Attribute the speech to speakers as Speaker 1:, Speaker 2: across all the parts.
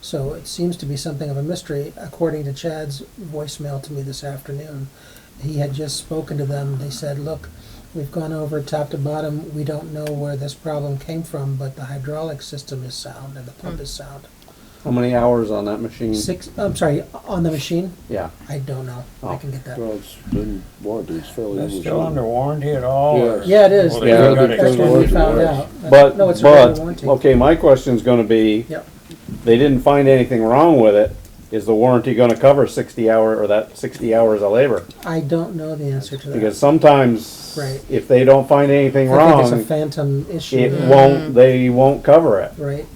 Speaker 1: So it seems to be something of a mystery. According to Chad's voicemail to me this afternoon, he had just spoken to them. They said, look, we've gone over top to bottom. We don't know where this problem came from, but the hydraulic system is sound and the pump is sound.
Speaker 2: How many hours on that machine?
Speaker 1: Six, I'm sorry, on the machine?
Speaker 2: Yeah.
Speaker 1: I don't know.
Speaker 2: Oh.
Speaker 1: I can get that.
Speaker 3: Well, it's been warranted, it's fairly.
Speaker 4: That's
Speaker 3: unusual.
Speaker 4: still under warranty at all? or-
Speaker 1: Yeah, it is.
Speaker 4: Well,
Speaker 2: Yeah,
Speaker 4: they got
Speaker 2: they-
Speaker 4: it
Speaker 1: That's
Speaker 2: Extended
Speaker 1: when we
Speaker 4: covered.
Speaker 1: found
Speaker 2: warranty.
Speaker 1: out.
Speaker 2: But,
Speaker 1: No, it's a
Speaker 2: but,
Speaker 1: warranty.
Speaker 2: okay, my question's gonna be,
Speaker 1: Yep.
Speaker 2: they didn't find anything wrong with it. Is the warranty gonna cover sixty hour, or that sixty hours of labor?
Speaker 1: I don't know the answer to that.
Speaker 2: Because sometimes,
Speaker 1: Right.
Speaker 2: if they don't find anything
Speaker 1: I think it's a Mm-hmm.
Speaker 2: wrong,
Speaker 1: phantom issue.
Speaker 2: it won't, they won't cover it.
Speaker 1: Right.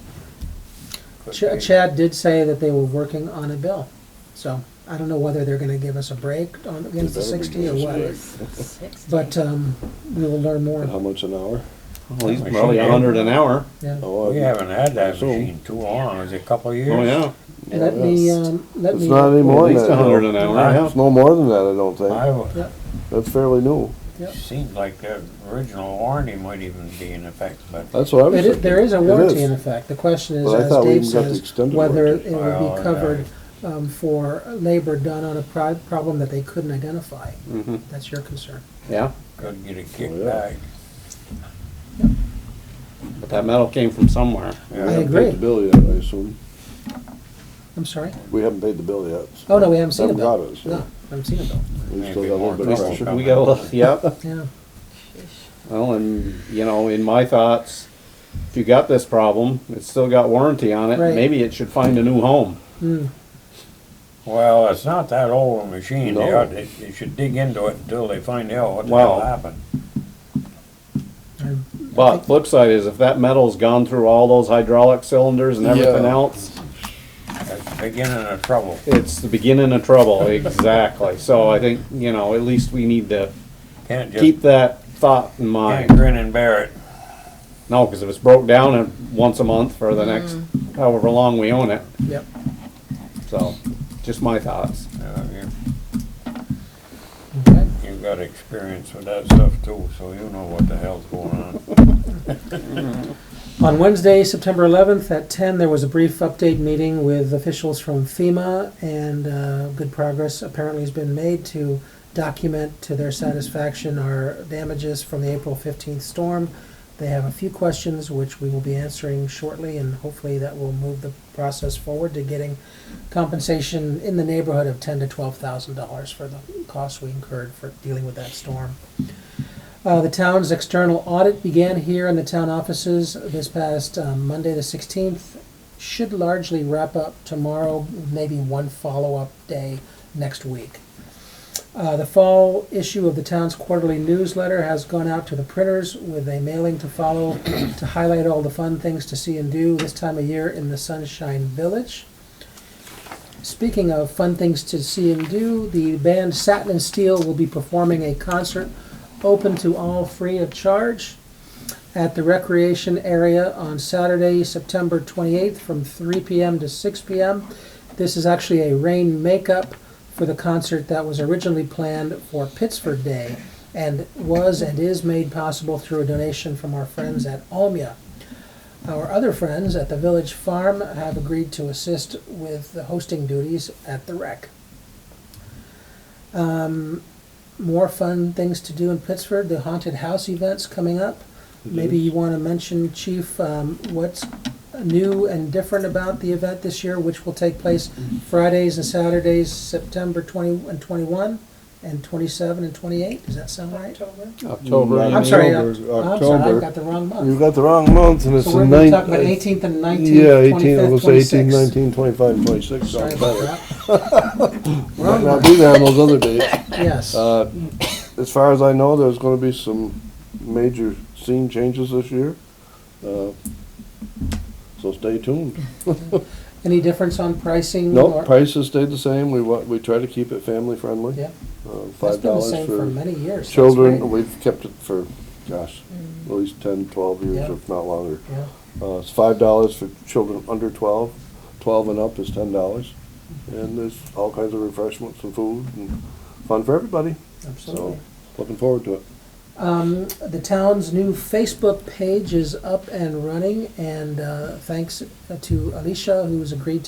Speaker 1: Ch- Chad did say that they were working on a bill, so I don't know whether they're gonna give us a break on, against the
Speaker 3: They better be
Speaker 1: sixty or
Speaker 3: giving us a
Speaker 1: what.
Speaker 3: break. Uh-huh.
Speaker 1: But, um, we will learn
Speaker 3: How
Speaker 1: more,
Speaker 3: much an hour?
Speaker 2: Well, he's
Speaker 4: Machine
Speaker 2: probably a
Speaker 4: gun.
Speaker 2: hundred an hour.
Speaker 1: yeah.
Speaker 3: Oh,
Speaker 4: We
Speaker 3: I-
Speaker 4: haven't had that
Speaker 3: Soon.
Speaker 4: machine too long, it was a couple of years.
Speaker 2: Oh, yeah.
Speaker 1: Let me, um, let
Speaker 3: It's
Speaker 1: me.
Speaker 3: not any
Speaker 2: At
Speaker 3: more than
Speaker 2: least
Speaker 3: that.
Speaker 2: a hundred an
Speaker 3: though.
Speaker 2: hour,
Speaker 4: Right.
Speaker 2: yeah.
Speaker 3: It's no more than that, I don't
Speaker 4: I
Speaker 3: think.
Speaker 4: w-
Speaker 1: Yep,
Speaker 3: That's fairly new.
Speaker 1: yep.
Speaker 4: seemed like the original warranty might even be in effect,
Speaker 2: Uh,
Speaker 4: but
Speaker 3: That's what I was
Speaker 1: It is,
Speaker 3: thinking.
Speaker 1: there is a
Speaker 3: It
Speaker 1: warranty in effect. The question is,
Speaker 3: But I
Speaker 1: as
Speaker 3: thought we
Speaker 1: Dave
Speaker 3: even got the
Speaker 1: says,
Speaker 3: extended
Speaker 1: whether it
Speaker 3: warranty.
Speaker 1: will
Speaker 4: Well,
Speaker 1: be
Speaker 4: yeah.
Speaker 1: covered, um, for labor done on a pri- problem that they couldn't identify.
Speaker 2: Mhm.
Speaker 1: That's your concern.
Speaker 2: Yeah,
Speaker 4: could get a kickback.
Speaker 3: yeah.
Speaker 2: but that metal came from somewhere.
Speaker 3: We
Speaker 4: Yeah.
Speaker 1: I
Speaker 3: haven't
Speaker 1: agree.
Speaker 3: paid the bill yet, I assume.
Speaker 1: I'm sorry?
Speaker 3: We haven't paid the bill yet. so-
Speaker 1: Oh, no, we haven't seen a bill.
Speaker 3: Haven't got it, so
Speaker 1: No, haven't seen a bill,
Speaker 3: we still
Speaker 4: Maybe
Speaker 3: got a
Speaker 4: more
Speaker 3: little bit
Speaker 2: We
Speaker 3: of
Speaker 4: trouble
Speaker 3: pressure.
Speaker 4: coming.
Speaker 2: we got a little, yeah.
Speaker 1: yeah.
Speaker 2: Well, and, you know, in my thoughts, if you got this problem, it's still got warranty on it,
Speaker 1: Right.
Speaker 2: maybe it should find a new home.
Speaker 1: Hmm.
Speaker 4: Well, it's not that old a machine, they
Speaker 3: No.
Speaker 4: ought, they they should dig into it until they find out what the
Speaker 2: Well,
Speaker 4: hell happened.
Speaker 1: I'm-
Speaker 2: But flip side is if that metal's gone through all those hydraulic cylinders and everything
Speaker 3: Yeah.
Speaker 2: else,
Speaker 4: That's the beginning of trouble.
Speaker 2: it's the beginning of trouble, exactly. So I think, you know, at least we need to
Speaker 4: Can't just,
Speaker 2: keep that thought in
Speaker 4: can't
Speaker 2: mind.
Speaker 4: grin and bear it.
Speaker 2: No, because if it's broke down uh, once a month for the next however long we own it,
Speaker 1: Yep.
Speaker 2: so, just my thoughts.
Speaker 4: Uh, you-
Speaker 3: Mm-hmm.
Speaker 1: Okay.
Speaker 4: You've got experience with that stuff too, so you know what the hell's going on.
Speaker 1: On Wednesday, September 11th at 10, there was a brief update meeting with officials from FEMA, and uh, good progress apparently has been made to document to their satisfaction our damages from the April 15th storm. They have a few questions which we will be answering shortly, and hopefully that will move the process forward to getting compensation in the neighborhood of 10 to 12,000 dollars for the costs we incurred for dealing with that storm. Uh, the town's external audit began here in the town offices this past um, Monday, the 16th. Should largely wrap up tomorrow, maybe one follow-up day next week. Uh, the fall issue of the town's quarterly newsletter has gone out to the printers with a mailing to follow to highlight all the fun things to see and do this time of year in the Sunshine Village. Speaking of fun things to see and do, the band Satin and Steel will be performing a concert open to all free of charge at the recreation area on Saturday, September 28th from 3 p.m. to 6 p.m. This is actually a rain makeup for the concert that was originally planned for Pittsford Day and was and is made possible through a donation from our friends at Almia. Our other friends at the Village Farm have agreed to assist with the hosting duties at the rec. Um, more fun things to do in Pittsford. The haunted house events coming up.
Speaker 3: Mm-hmm.
Speaker 1: Maybe you want to mention, Chief, um, what's new and different about the event this year, which will take place Fridays and Saturdays, September 20 and 21, and 27 and 28. Does that sound right?
Speaker 2: October.
Speaker 3: Mm,
Speaker 2: you
Speaker 1: I'm sorry,
Speaker 2: mean?
Speaker 1: Oc-
Speaker 3: October,
Speaker 1: I'm sorry, I've
Speaker 3: October.
Speaker 1: got the wrong month.
Speaker 3: You got the wrong month and it's
Speaker 1: So we're
Speaker 3: the
Speaker 1: gonna be
Speaker 3: ninth.
Speaker 1: talking about eighteenth and
Speaker 3: Yeah,
Speaker 1: nineteenth,
Speaker 3: eighteen, I
Speaker 1: twenty-fifth,
Speaker 3: was gonna say
Speaker 1: twenty-sixth.
Speaker 3: eighteen, nineteen, twenty-five, and twenty-six.
Speaker 1: Sorry
Speaker 3: sounds
Speaker 1: about
Speaker 3: better.
Speaker 1: that.
Speaker 3: Might not be there on those other days.
Speaker 1: Yes,
Speaker 3: Uh,
Speaker 1: Mm.
Speaker 3: As far as I know, there's gonna be some major scene changes this year. Uh, So stay tuned.
Speaker 1: Mm-hmm. any difference on pricing?
Speaker 3: No,
Speaker 1: or-
Speaker 3: prices stayed the same. We wa, we try to keep it family friendly.
Speaker 1: Yeah,
Speaker 3: Uh,
Speaker 1: that's
Speaker 3: Five
Speaker 1: been the
Speaker 3: dollars
Speaker 1: same for
Speaker 3: for
Speaker 1: many years. that's
Speaker 3: children.
Speaker 1: great.
Speaker 3: We've kept it for, gosh, at least ten, twelve years,
Speaker 1: Yeah.
Speaker 3: if not longer.
Speaker 1: Yeah,
Speaker 3: Uh, it's five dollars for children under twelve. Twelve and up is ten dollars.
Speaker 1: Mm-hmm.
Speaker 3: And there's all kinds of refreshments and food and fun for everybody.
Speaker 1: absolutely.
Speaker 3: Looking forward to it.
Speaker 1: Um, the town's new Facebook page is up and running, and, uh, thanks to Alicia, who's agreed to